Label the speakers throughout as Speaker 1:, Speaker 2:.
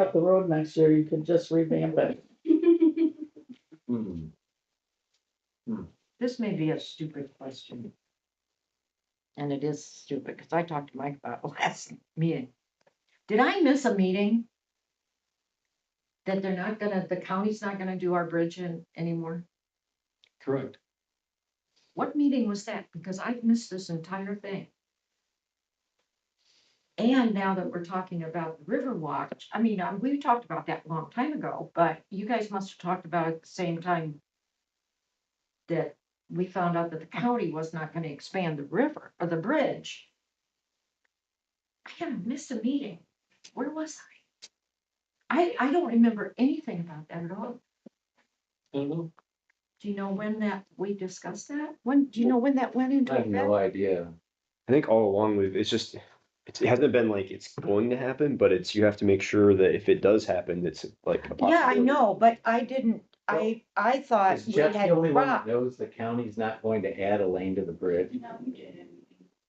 Speaker 1: up the road next year, you could just revamp it.
Speaker 2: Hmm.
Speaker 3: This may be a stupid question. And it is stupid, because I talked to Mike about it last meeting. Did I miss a meeting? That they're not gonna, the county's not gonna do our bridge in anymore?
Speaker 2: Correct.
Speaker 3: What meeting was that? Because I've missed this entire thing. And now that we're talking about the Riverwatch, I mean, um, we talked about that a long time ago, but you guys must have talked about it at the same time that we found out that the county was not gonna expand the river or the bridge. I kind of missed a meeting. Where was I? I, I don't remember anything about that at all.
Speaker 2: I don't know.
Speaker 3: Do you know when that, we discussed that? When, do you know when that went into
Speaker 2: I have
Speaker 3: effect?
Speaker 2: no idea.
Speaker 4: I think all along we've, it's just, it's- it hasn't been like it's going to happen, but it's, you have to make sure that if it does happen, it's like a
Speaker 5: Yeah, I
Speaker 4: possibility.
Speaker 5: know, but I didn't, I, I thought
Speaker 2: Is
Speaker 5: we
Speaker 2: Jeff the
Speaker 5: had
Speaker 2: only one that
Speaker 5: dropped.
Speaker 2: knows the county's not going to add a lane to the bridge?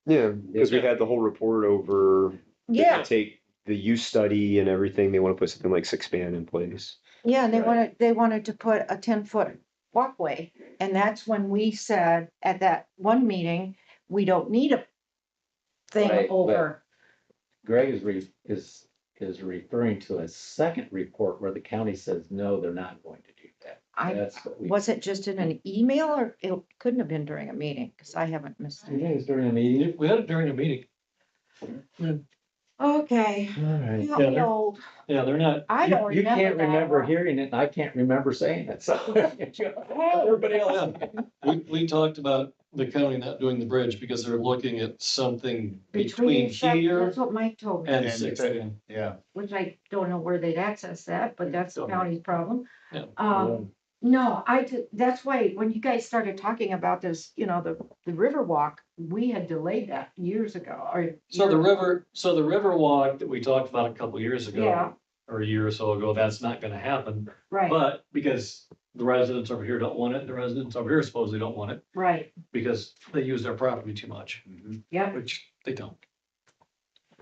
Speaker 4: Yeah, because we had the whole report over, they
Speaker 5: Yeah,
Speaker 4: take the use study and everything, they want to put something like six span in place.
Speaker 5: yeah, and they
Speaker 2: Right.
Speaker 5: wanted, they wanted to put a ten-foot walkway. And that's when we said at that one meeting, we don't need a
Speaker 2: Right,
Speaker 5: thing
Speaker 2: but-
Speaker 5: over.
Speaker 2: Greg is re, is, is referring to a second report where the county says, no, they're not going to do that.
Speaker 5: I,
Speaker 2: That's what we.
Speaker 5: was it just in an email or it couldn't have been during a meeting, because I haven't missed
Speaker 2: You
Speaker 5: it.
Speaker 2: guys during the meeting?
Speaker 6: We had it during a meeting.
Speaker 5: Okay,
Speaker 2: All right.
Speaker 5: help me
Speaker 6: they're-
Speaker 5: old.
Speaker 6: Yeah, they're not,
Speaker 5: I don't
Speaker 2: You- You
Speaker 5: remember.
Speaker 2: can't
Speaker 5: that
Speaker 2: remember
Speaker 5: one.
Speaker 2: hearing it, and I can't remember saying it, so. Everybody else.
Speaker 6: we, we talked about the county not doing the bridge because they're looking at something between
Speaker 3: sep-
Speaker 6: here
Speaker 3: That's what Mike told me,
Speaker 6: and
Speaker 7: And
Speaker 6: sixteen.
Speaker 7: Yeah,
Speaker 3: which I don't know where they'd access that, but that's the
Speaker 6: Don't know.
Speaker 3: county's problem.
Speaker 6: Yeah.
Speaker 3: Um, no, I, ju- that's why, when you guys started talking about this, you know, the, the river walk, we had delayed that years ago, or.
Speaker 6: So the
Speaker 3: year-
Speaker 6: river, so the river walk that we talked about a couple years
Speaker 3: Yeah.
Speaker 6: ago, or a year or so ago, that's not gonna happen.
Speaker 3: Right,
Speaker 6: But because the residents over here don't want it, the residents over here supposedly don't want it
Speaker 3: right,
Speaker 6: because they use their property too much,
Speaker 2: Mhm.
Speaker 3: yeah,
Speaker 6: which they don't.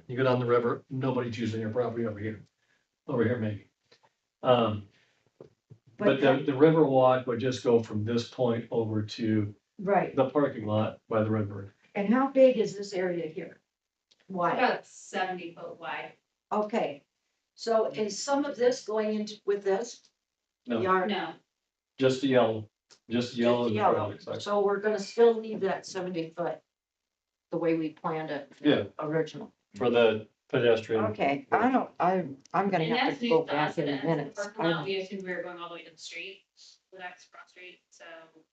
Speaker 6: You go down the river, nobody's using your property over here, over here maybe. Um,
Speaker 3: but,
Speaker 6: But
Speaker 3: that-
Speaker 6: the, the river walk would just go from this point over to
Speaker 3: right,
Speaker 6: the parking lot by the river.
Speaker 3: and how big is this area here? Why?
Speaker 8: About seventy foot wide.
Speaker 3: Okay, so is some of this going into, with this?
Speaker 6: No.
Speaker 3: Yard-
Speaker 8: No,
Speaker 6: Just the yellow, just the yellow. is
Speaker 3: Just
Speaker 6: the
Speaker 3: yellow.
Speaker 6: road, exactly.
Speaker 3: So we're gonna still leave that seventy foot the way we planned it.
Speaker 6: Yeah.
Speaker 3: Original.
Speaker 6: For the pedestrian.
Speaker 5: Okay, I don't, I, I'm gonna
Speaker 8: and
Speaker 5: have
Speaker 8: that's
Speaker 5: to
Speaker 8: new
Speaker 5: go
Speaker 8: to us,
Speaker 5: back in a
Speaker 8: that's the
Speaker 5: minute.
Speaker 8: parking lot we assumed we were going all the way to the street, the next cross street, so,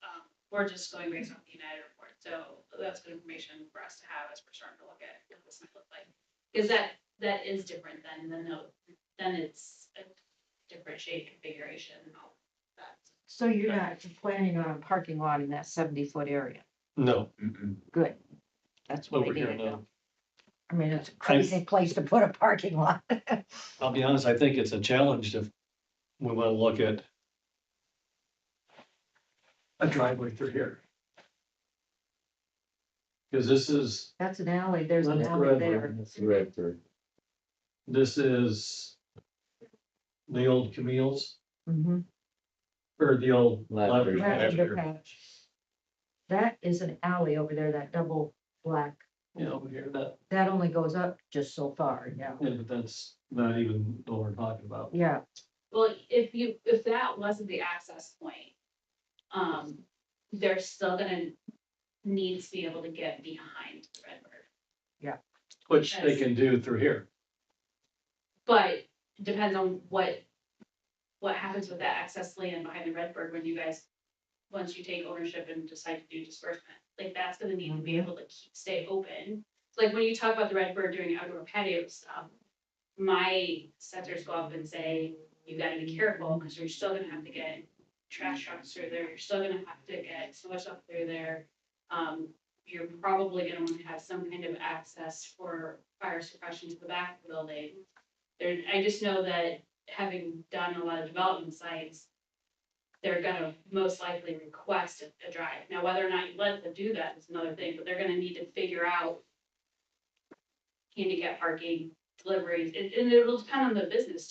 Speaker 8: um, we're just going based on the United report, so that's good information for us to have as we're starting to look at what this might look like. Cause that, that is different than the note, then it's a different shade configuration and all that.
Speaker 3: So you're not planning on a parking lot in that seventy foot area?
Speaker 6: No,
Speaker 2: Mhm.
Speaker 3: That's what I
Speaker 6: over here,
Speaker 3: needed.
Speaker 6: no.
Speaker 3: I mean, it's a crazy place to put a parking lot.
Speaker 6: I'll be honest, I think it's a challenge if we want to look at a driveway through here. Because this is,
Speaker 3: That's an alley, there's an
Speaker 6: That's
Speaker 3: alley
Speaker 6: right.
Speaker 3: there.
Speaker 2: That's the red third.
Speaker 6: this is the old Camille's
Speaker 3: Mhm.
Speaker 6: or the old.
Speaker 2: Lavender.
Speaker 6: Lavender
Speaker 3: That
Speaker 6: Pasture.
Speaker 3: underpass. That is an alley over there, that double black,
Speaker 6: Yeah, over here, that,
Speaker 3: that only goes up just so far, yeah,
Speaker 6: yeah, but that's not even what we're talking about.
Speaker 3: yeah,
Speaker 8: Well, if you, if that wasn't the access point, um, they're still gonna need to be able to get behind the red bird.
Speaker 6: Which they can do through here.
Speaker 8: But it depends on what, what happens with that access land behind the red bird when you guys, once you take ownership and decide to do disbursement, like that's gonna need to be able to keep, stay open. Like when you talk about the red bird doing outdoor patio stuff, my sensors go up and say, you gotta be careful, because you're still gonna have to get trash trucks through there, you're still gonna have to get so much stuff through there. Um, you're probably gonna wanna have some kind of access for fire suppression to the back of the building. There, I just know that having done a lot of development sites, they're gonna most likely request a, a drive. Now, whether or not you let them do that is another thing, but they're gonna need to figure out handicap parking, deliveries, and, and it'll depend on the business